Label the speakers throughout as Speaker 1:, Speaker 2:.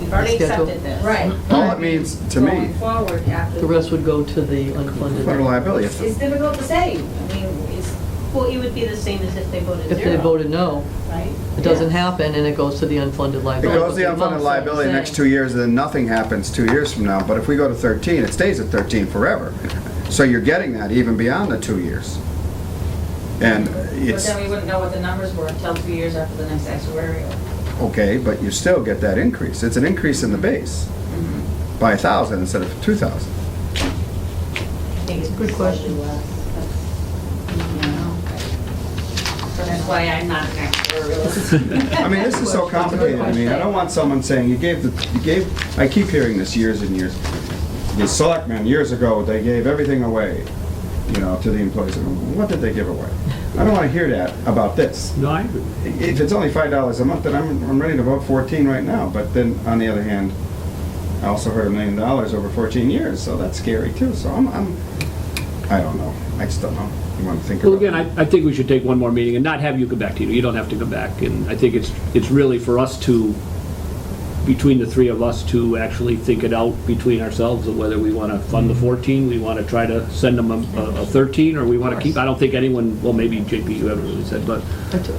Speaker 1: We've already
Speaker 2: schedule.
Speaker 1: accepted this.
Speaker 3: Right.
Speaker 4: All it means to
Speaker 3: Going
Speaker 4: me,
Speaker 3: forward after.
Speaker 2: The rest would go to the
Speaker 4: federal
Speaker 2: unfunded.
Speaker 4: liability. If
Speaker 3: It's difficult to say. I mean, it's,
Speaker 1: Well, it would be the same as if they voted
Speaker 2: If
Speaker 1: zero,
Speaker 2: they voted no,
Speaker 1: right?
Speaker 2: it doesn't happen and it goes to the unfunded
Speaker 4: It
Speaker 2: liability.
Speaker 4: goes to the
Speaker 2: But amount's
Speaker 4: unfunded liability
Speaker 2: the
Speaker 4: next
Speaker 2: same.
Speaker 4: two years, and then nothing happens two years from now. But if we go to 13, it stays at 13 forever. So you're getting that even beyond the two years. And
Speaker 3: but
Speaker 4: it's,
Speaker 3: then we wouldn't know what the numbers were until two years after the next actuarial.
Speaker 4: okay, but you still get that increase. It's an increase in the base by 1,000 instead of 2,000.
Speaker 1: I think it's
Speaker 2: Good question.
Speaker 1: slightly less.
Speaker 3: So that's why I'm not an actuarial.
Speaker 4: I mean, this is so complicated to me. I don't want someone saying, you gave, the you gave, I keep hearing this years and years. The selectmen, years ago, they gave everything away, you know, to the employees. What did they give away? I don't want to hear that about this.
Speaker 5: No, I agree.
Speaker 4: If it's only five dollars a month, then I'm, I'm ready to vote fourteen right now. But then, on the other hand, I also heard a million dollars over fourteen years, so that's scary too. So I'm, I'm, I don't know. I just don't know. You want to think about
Speaker 5: Well,
Speaker 4: it?
Speaker 5: again, I, I think we should take one more meeting and not have you come back to you. You don't have to come back. And I think it's, it's really for us to, between the three of us, to actually think it out between ourselves of whether we want to fund the
Speaker 4: Mm-hmm.
Speaker 5: 14, we want to try to send them a- a, a 13, or we want to keep, I don't think anyone, well, maybe JP, you haven't really said, but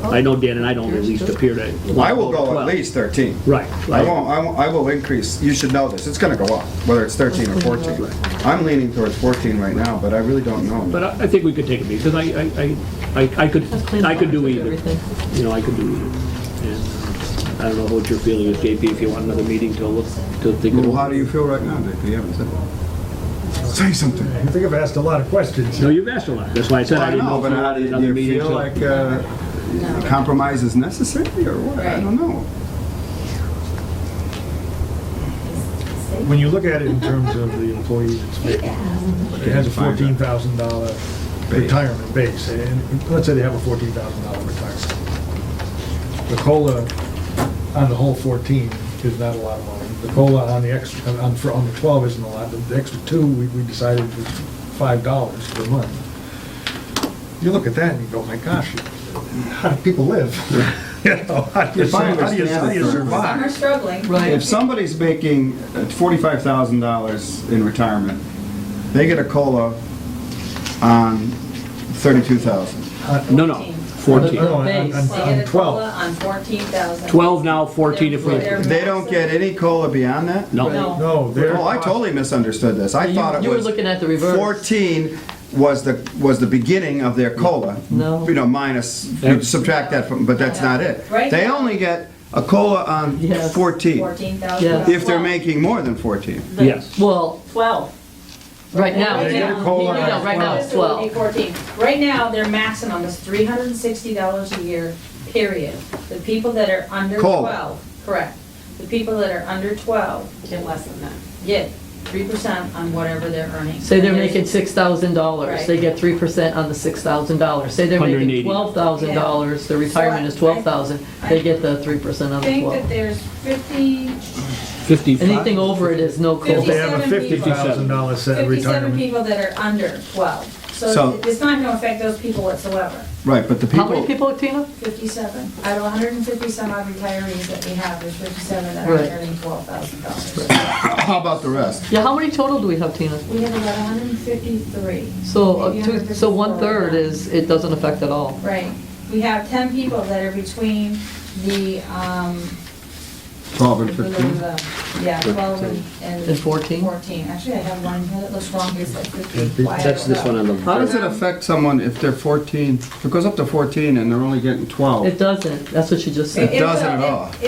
Speaker 5: I know Dan and I don't at least appear to. want
Speaker 4: I
Speaker 5: to
Speaker 4: will
Speaker 5: to
Speaker 4: go at
Speaker 5: 12.
Speaker 4: least thirteen.
Speaker 5: Right.
Speaker 4: I
Speaker 5: right.
Speaker 4: won't, I won't, I will increase, you should know this, it's gonna go up, whether it's thirteen or fourteen. I'm leaning towards fourteen right now, but I really don't
Speaker 5: But
Speaker 4: know.
Speaker 5: I, I think we could take a meeting, because I, I- I, I, I could,
Speaker 2: Let's clean
Speaker 5: I could
Speaker 2: the
Speaker 5: do
Speaker 2: box,
Speaker 5: either.
Speaker 2: everything.
Speaker 5: You know, I could do either. And uh, I don't know what your feeling is, JP, if you want another meeting to look, to think
Speaker 4: Well, how
Speaker 5: about.
Speaker 4: do you feel right now, Dick, you haven't said it. Say something.
Speaker 6: I think I've asked a lot of questions.
Speaker 5: No, you've asked a lot, that's why I said I didn't know.
Speaker 4: But
Speaker 5: if you
Speaker 4: how
Speaker 5: wanted
Speaker 4: do you, do
Speaker 5: another
Speaker 4: you
Speaker 5: meeting
Speaker 4: feel
Speaker 5: to-
Speaker 4: like, uh, compromise is necessary, or what? I
Speaker 3: Right.
Speaker 4: don't know.
Speaker 6: When you look at it in terms of the employees, it's big. it has a fourteen thousand dollar retirement base, and let's say they have a fourteen thousand dollar retirement. The COLA on the whole fourteen is not a lot of money. The COLA on the extra, on, for- on the twelve isn't a lot, the extra two, we, we decided was five dollars per month. You look at that and you go, my gosh, how do people live? You know, how do you,
Speaker 4: If I
Speaker 6: how do you- how do
Speaker 4: understand it
Speaker 6: you
Speaker 4: correctly.
Speaker 6: survive?
Speaker 3: Some are struggling.
Speaker 4: If
Speaker 2: Right,
Speaker 4: somebody's making uh, forty-five thousand dollars in retirement, they get a COLA on thirty-two thousand.
Speaker 5: No, no, 14.
Speaker 6: No, on- on-
Speaker 2: Base.
Speaker 3: They get
Speaker 6: On
Speaker 3: a COLA
Speaker 6: 12.
Speaker 3: on fourteen thousand.
Speaker 5: 12 now, 14 if we,
Speaker 3: They're-
Speaker 4: They don't get any COLA beyond that?
Speaker 5: no.
Speaker 3: No.
Speaker 6: No, they're.
Speaker 4: Oh, I totally misunderstood this. I
Speaker 2: You-
Speaker 4: thought it was.
Speaker 2: you were looking at the reverse.
Speaker 4: Fourteen was the, was the beginning of their COLA.
Speaker 2: No.
Speaker 4: You know, minus, you subtract that from, but that's not it.
Speaker 3: Right.
Speaker 4: They only get a COLA on
Speaker 2: Yes.
Speaker 4: fourteen,
Speaker 3: Fourteen thousand.
Speaker 2: Yeah.
Speaker 4: if they're making more than fourteen.
Speaker 5: Yes,
Speaker 2: well,
Speaker 1: Twelve.
Speaker 2: right now,
Speaker 3: Right now.
Speaker 2: No, no, right now it's
Speaker 3: This would be
Speaker 2: 12.
Speaker 3: 14. Right now, their maximum is three hundred and sixty dollars a year, period. The people that are under
Speaker 4: Cola.
Speaker 3: twelve, correct. The people that are under twelve
Speaker 1: Get less than that.
Speaker 3: get three percent on whatever they're earning.
Speaker 2: Say they're
Speaker 3: And there's-
Speaker 2: making $6,000, they get 3% on the $6,000. Say they're making
Speaker 5: 180.
Speaker 2: $12,000, their retirement is 12,000, they get the 3% on
Speaker 3: I
Speaker 2: the
Speaker 3: think
Speaker 2: 12.
Speaker 3: that there's fifty,
Speaker 5: 55.
Speaker 2: Anything over it is no
Speaker 6: If they
Speaker 2: COLA.
Speaker 6: have a fifty
Speaker 3: 57
Speaker 6: thousand dollar set
Speaker 3: fifty-seven
Speaker 6: retirement.
Speaker 3: people that are under twelve.
Speaker 4: So-
Speaker 3: So it- it's not gonna affect those people whatsoever.
Speaker 4: Right, but the
Speaker 2: How many
Speaker 4: people,
Speaker 2: people, Tina?
Speaker 3: Fifty-seven, out of hundred and fifty some odd retirees that we have, there's fifty-seven that are
Speaker 2: Right.
Speaker 3: earning twelve thousand dollars.
Speaker 4: how about the rest?
Speaker 2: Yeah, how many total do we have, Tina?
Speaker 3: We have about hundred and fifty-three.
Speaker 2: So, uh, two- so one-third is, it doesn't affect at all.
Speaker 3: Right. We have ten people that are between the, um,
Speaker 4: Twelve and
Speaker 3: the-
Speaker 4: fifteen?
Speaker 3: the- yeah, twelve and.
Speaker 2: And 14?
Speaker 3: Fourteen. Actually, I have one here that looks wrong, it's like fifteen.
Speaker 6: fifteen.
Speaker 3: Why I
Speaker 5: That's this
Speaker 3: don't
Speaker 5: one
Speaker 3: know.
Speaker 5: on the.
Speaker 4: How does it affect someone if they're fourteen, if it goes up to fourteen and they're only getting
Speaker 2: It
Speaker 4: twelve?
Speaker 2: doesn't, that's what you just
Speaker 3: It-
Speaker 2: said.
Speaker 3: it
Speaker 4: doesn't
Speaker 3: will-
Speaker 4: at all.
Speaker 3: It,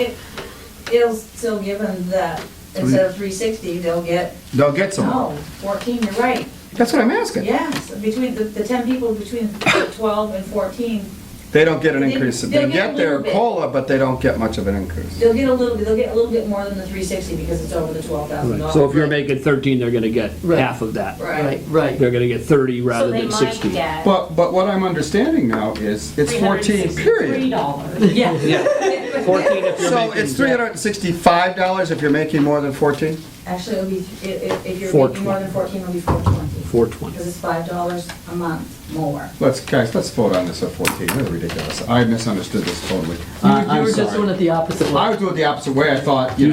Speaker 3: it- it'll still give them the, instead of three sixty, they'll get,
Speaker 4: They'll get some.
Speaker 3: no, fourteen, you're right.
Speaker 4: That's what I'm asking.
Speaker 3: Yes, between the, the ten people between twelve and fourteen,
Speaker 4: They don't get an
Speaker 3: They-
Speaker 4: increase. They
Speaker 3: they'll get
Speaker 4: get
Speaker 3: a
Speaker 4: their
Speaker 3: little bit.
Speaker 4: COLA, but they don't get much of an increase.
Speaker 3: they'll get a little, bit. they'll get a little bit more than the three sixty because it's over the twelve thousand
Speaker 5: Right.
Speaker 3: dollars.
Speaker 5: So if you're making 13, they're going to get
Speaker 2: Right.
Speaker 5: half of that.
Speaker 3: Right.
Speaker 2: Right, right.
Speaker 5: They're going to get 30 rather than
Speaker 1: So
Speaker 5: 60.
Speaker 1: they might get
Speaker 4: But, but what I'm understanding now is, it's 14,
Speaker 1: three
Speaker 4: period.
Speaker 1: dollars. Yeah.
Speaker 5: Yeah, 14 if you're
Speaker 4: So
Speaker 5: making-
Speaker 4: it's $365 if you're making more than 14?
Speaker 3: Actually, it'll be, i- i- if you're
Speaker 5: Four
Speaker 3: making more than fourteen, it'll be four twenty,
Speaker 5: 420.
Speaker 3: because it's five dollars a month more.
Speaker 4: Let's, guys, let's vote on this at 14, this is ridiculous. I misunderstood this totally.
Speaker 2: You
Speaker 4: I-
Speaker 2: you
Speaker 4: I'm
Speaker 2: were just
Speaker 4: sorry.
Speaker 2: doing it the opposite way.
Speaker 4: I was doing it the opposite way, I thought, you know.